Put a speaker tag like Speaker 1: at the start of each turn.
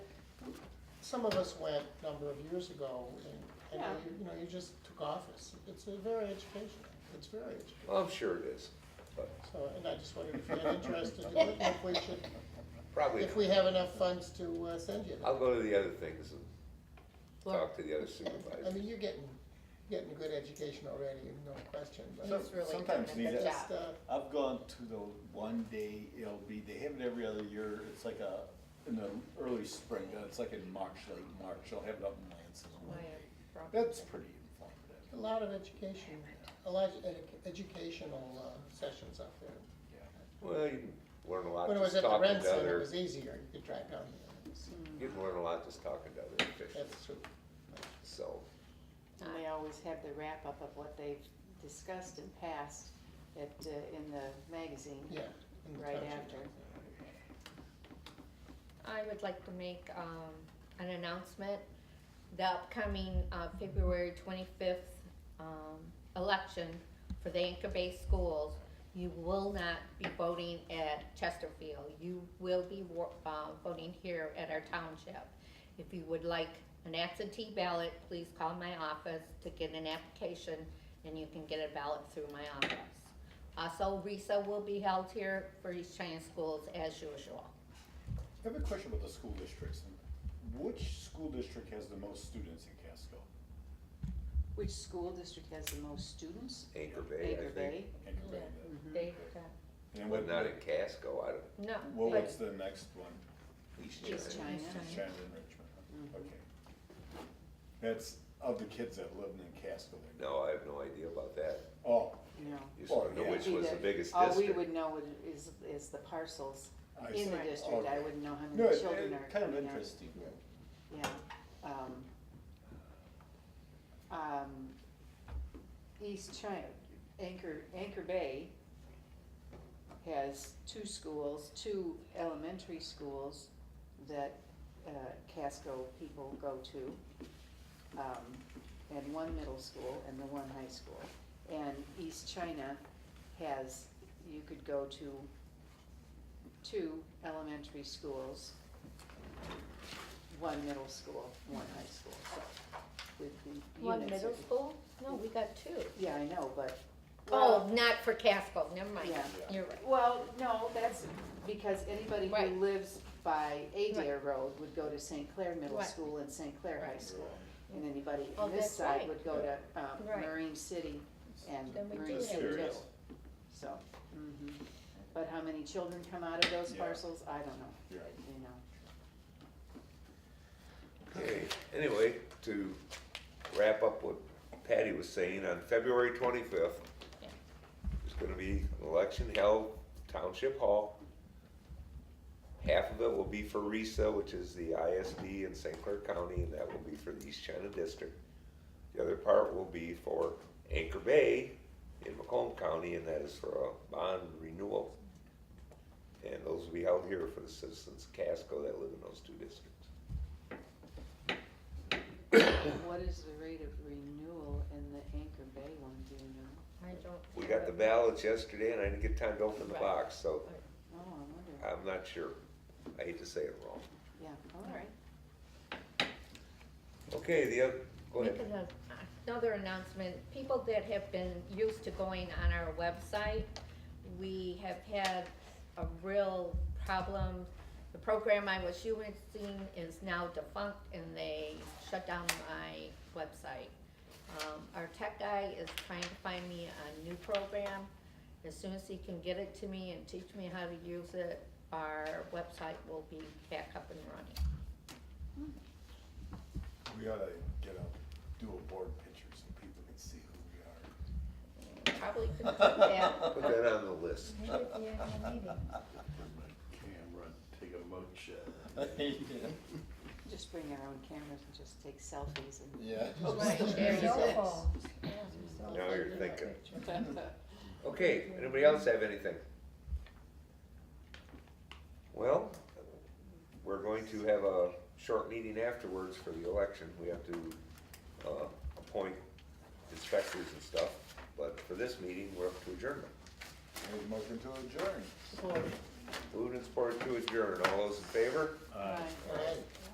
Speaker 1: some of us went a number of years ago, and, and
Speaker 2: Yeah.
Speaker 1: you, you know, you just took office. It's uh, very educational, it's very educational.
Speaker 3: Well, I'm sure it is, but
Speaker 1: So, and I just wondered if you had interest to do it, and if we should,
Speaker 3: probably
Speaker 1: if we
Speaker 3: not.
Speaker 1: have enough funds to uh, send you.
Speaker 3: I'll go to the other things and
Speaker 1: Look,
Speaker 3: talk to the other
Speaker 1: I
Speaker 3: supervisors.
Speaker 1: mean, you're getting, getting good education already, no question,
Speaker 4: So-
Speaker 1: but
Speaker 2: He's really
Speaker 4: sometimes
Speaker 2: doing a
Speaker 4: need
Speaker 2: good
Speaker 4: it.
Speaker 2: job.
Speaker 1: just, uh,
Speaker 4: I've gone to the one day, it'll be, they have it every other year, it's like a, in the early spring, uh, it's like in March, late March, they'll have it up in Lansing. one
Speaker 2: Land,
Speaker 4: day.
Speaker 2: property.
Speaker 4: That's pretty informative,
Speaker 1: a lot of education, a lot of edu- educational uh, sessions up there.
Speaker 4: yeah.
Speaker 3: Well, you can learn a lot
Speaker 1: When it was at
Speaker 3: just
Speaker 1: the
Speaker 3: talking
Speaker 1: Ren
Speaker 3: to
Speaker 1: Center, it
Speaker 3: other,
Speaker 1: was easier, you could drive down here.
Speaker 3: you can learn a lot just talking to other
Speaker 2: Mm.
Speaker 3: officials,
Speaker 1: That's true.
Speaker 3: so.
Speaker 2: And they always have the wrap-up of what they've discussed and passed at, uh, in the magazine.
Speaker 1: Yeah. in the
Speaker 2: Right
Speaker 1: township.
Speaker 2: after.
Speaker 5: I would like to make um, an announcement. The upcoming uh, February 25th um, election for the Anchor Bay Schools, you will not be voting at Chesterfield. You will be wo- uh, voting here at our township. If you would like an absentee ballot, please call my office to get an application, and you can get a ballot through my office. Also, RISA will be held here for East China Schools as usual.
Speaker 4: I have a question about the school districts, which school district has the most students in Casco?
Speaker 2: Which school district has the most students?
Speaker 3: Anchor Bay,
Speaker 2: Baker
Speaker 3: I think,
Speaker 2: Bay. Mm-hmm.
Speaker 4: Anchor Bay
Speaker 5: Yeah.
Speaker 4: does.
Speaker 5: They,
Speaker 4: And
Speaker 3: but
Speaker 4: what,
Speaker 3: not in Casco, I don't,
Speaker 5: no.
Speaker 4: well,
Speaker 5: but-
Speaker 4: what's the next one?
Speaker 3: East
Speaker 2: East
Speaker 3: China.
Speaker 2: China.
Speaker 5: China.
Speaker 4: China and Richmond,
Speaker 2: Mm-hmm.
Speaker 4: huh? okay. That's of the kids that live in Casco, they-
Speaker 3: No, I have no idea about that.
Speaker 4: oh,
Speaker 2: No.
Speaker 3: You just wanna
Speaker 4: Well,
Speaker 3: know
Speaker 4: yeah.
Speaker 3: which was the biggest
Speaker 2: All we
Speaker 3: district.
Speaker 2: would know would- is, is the parcels
Speaker 4: I see.
Speaker 2: in the district. I
Speaker 4: Okay.
Speaker 2: wouldn't know how
Speaker 4: No,
Speaker 2: many
Speaker 4: it,
Speaker 2: children
Speaker 4: it,
Speaker 2: are
Speaker 4: kind of
Speaker 2: coming out.
Speaker 4: interesting.
Speaker 2: Yeah, um, um, East China, Anchor, Anchor Bay has two schools, two elementary schools that, uh, Casco people go to. Um, and one middle school and the one high school. And East China has, you could go to two elementary schools one middle school, one high school, so. with the
Speaker 5: One
Speaker 2: units-
Speaker 5: middle school? No, we got two.
Speaker 2: Yeah, I know, but.
Speaker 5: Oh, not for Casco, never mind.
Speaker 2: Yeah.
Speaker 5: You're right.
Speaker 2: Well, no, that's because anybody who
Speaker 5: Right.
Speaker 2: lives by Adair
Speaker 5: Right.
Speaker 2: Road would go to St. Clair Middle
Speaker 5: Right.
Speaker 2: School and St. Clair High
Speaker 5: Right.
Speaker 2: School. And anybody
Speaker 5: Oh,
Speaker 2: on this
Speaker 5: that's
Speaker 2: side
Speaker 5: right.
Speaker 2: would go to, um,
Speaker 5: Right.
Speaker 2: Marine City and
Speaker 5: Then we do
Speaker 2: Marine
Speaker 5: have
Speaker 2: City Middle,
Speaker 4: Serious.
Speaker 2: so. mhm. But how many children come out of those
Speaker 4: Yeah.
Speaker 2: parcels, I don't know,
Speaker 4: Yeah.
Speaker 2: you know.
Speaker 3: Okay, anyway, to wrap up what Patty was saying, on February twenty-fifth,
Speaker 5: Yeah.
Speaker 3: there's gonna be an election held Township Hall. Half of it will be for RISA, which is the ISD in St. Clair County, and that will be for the East China District. The other part will be for Anchor Bay in Macomb County, and that is for a bond renewal. And those will be held here for the citizens of Casco that live in those two districts.
Speaker 2: What is the rate of renewal in the Anchor Bay one, do you know?
Speaker 5: I don't.
Speaker 3: We got the ballots yesterday and I didn't get time to open the
Speaker 5: Right.
Speaker 3: box, so
Speaker 2: Oh, I wonder.
Speaker 3: I'm not sure. I hate to say it wrong.
Speaker 2: Yeah, all right.
Speaker 3: Okay, the other, go
Speaker 5: Make
Speaker 3: ahead.
Speaker 5: an- Another announcement, people that have been used to going on our website, we have had a real problem. The program I was using is now defunct and they shut down my website. Um, our tech guy is trying to find me a new program. As soon as he can get it to me and teach me how to use it, our website will be back up and running.
Speaker 4: We ought to get a, do a board picture so people can see who
Speaker 5: Probably couldn't do that.
Speaker 3: Put that on the list.
Speaker 4: we are. Camera, take a mug shot.
Speaker 2: Just bring our own cameras and just take selfies and.
Speaker 4: Yeah.
Speaker 3: Now you're thinking.
Speaker 2: Well,
Speaker 3: Okay, anybody else have anything? Well, we're going to have a short meeting afterwards for the election. We have to, uh, appoint inspectors and stuff. But for this meeting, we're up to adjournment.
Speaker 4: Make a motion to adjourn.
Speaker 3: Moved and supported to adjourn. All those in favor?
Speaker 2: Right.
Speaker 1: All right.